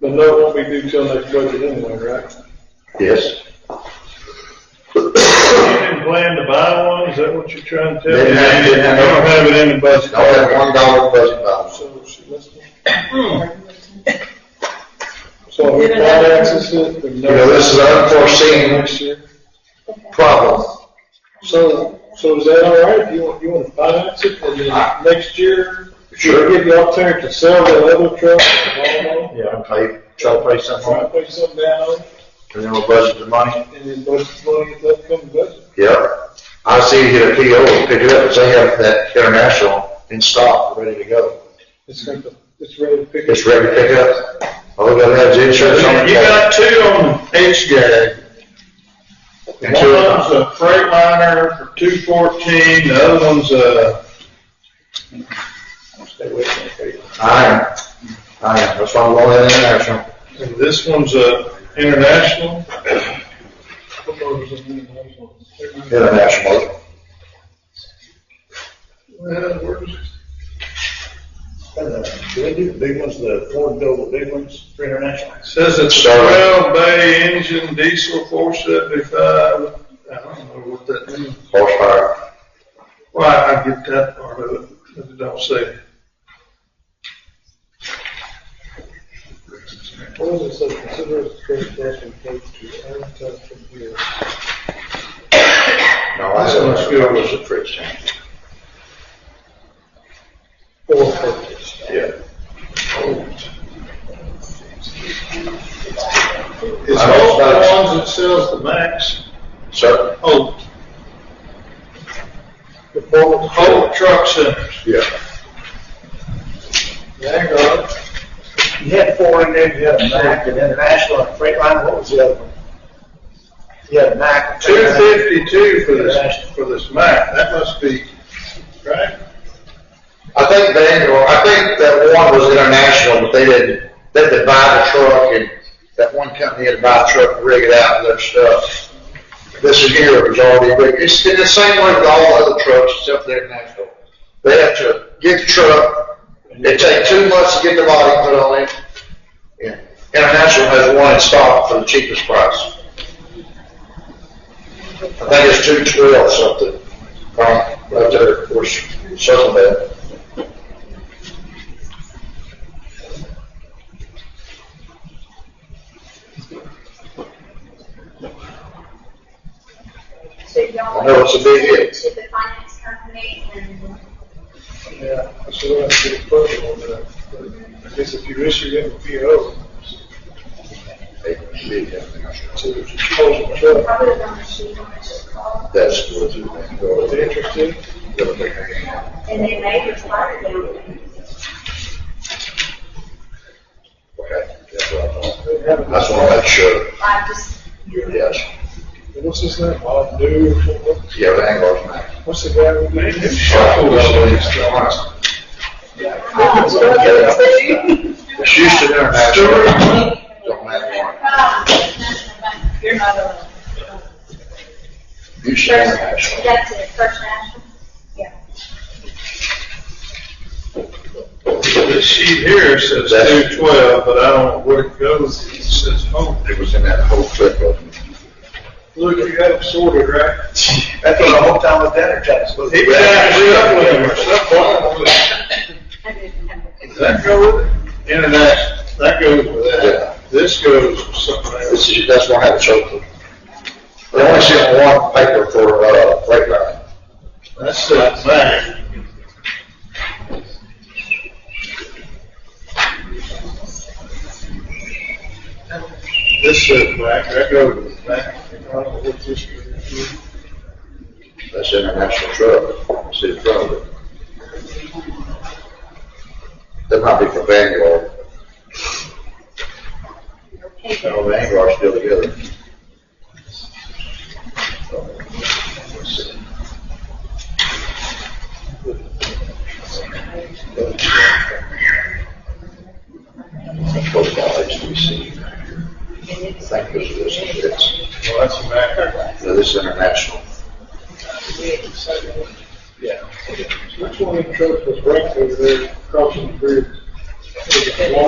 The note won't be due till next budget anyway, right? Yes, You didn't plan to buy one, is that what you're trying to tell me? Didn't have- didn't have- You don't have it in the budget. I have one dollar budget balance. So she must. So we finances it, the note. You know, this is unforeseen. Next year. Problem. So, so is that all right? If you want, you want to finance it, and then next year, Sure. you give the opportunity to sell that other truck, and Yeah, I pay, try to pay something, try to off, pay something down on it, and then we'll budget the money. and then budget money at the upcoming budget. Yeah, I see you get a PO, and pick it up, 'cause they have that international in stock, ready to go. It's going to, it's ready to pick. up. It's ready to pick up. All we gotta have is insurance on it. You got two on each day. And two of One's a Freightliner for two fourteen, the other one's uh, a. Stay with me, I am, I am, that's why I'm going in international. and this one's a international. International. Well, where's it? Uh, Do they do the big ones, the Ford build the big ones for international? Says it's twelve bay engine diesel four seventy-five. I don't know what that means. Horsepower. Well, I I get that part of it, but it don't say. What does it say? Consider it straight cash and paid to advertise from here. No, I This one's good. was a fridge tank. Or purchase. Yeah. Is I don't Holt the know. ones that sells the max? Oh, So, Holt, Performance. Holt Truck Centers. yeah. Vanguard. You had four in there, you had a Mac, and International, and Freightliner, what was the other one? You had a Mac. Two fifty-two for this, for this Mack, that must be, right? I think they, or I think that one was international, but they didn't, they had to buy the truck and that one company had to buy a truck, and rig it out and their stuff. This is here, it was already rigged. It's in the same way with all the other trucks except the international. They have to get the truck, it takes two months to get the body put on it. Yeah. International has one in stock for the cheapest price. I think it's two twelve something, right, right there, of course, something that. So y'all. I know it's a big hit. To the finance company and. Yeah, I should have to get a permit on that. But I guess if you issue them a PO to dispose of the truck, Probably don't shoot on this call, That's what you think, or if they're the interested, and then they respond to them. Okay, that's what I thought. they have That's what I sure, I just, yes, What's his name? Bob New, what- yeah, the Anglo's man. what's the guy with Man, them the? shovels on these trucks. It's Houston International, don't um, have one, you're not alone. Houston First, International. that's it, First National? Yeah. This sheet here says That's- two twelve, but I don't know where it goes, it says Holt. It was in that whole clip of, Look, you got them sorted, right? That's what the whole town was energized, was He it? was up with him or something. I didn't have a- Does that go with it? International, that goes with Yeah. that. This goes with something else. this is, that's why I had it circled. They only sent one paper for, uh, freight line. That's that back. This says back, that goes with back. That's international truck, see the front of it. That might be for Vanguard. No, Vanguard's still together. That's what about HBC. I think this is, this is, it's, Well, that's a back. no, this is international. Which one of the trucks was wrecked over there crossing the bridge? Was it Wal-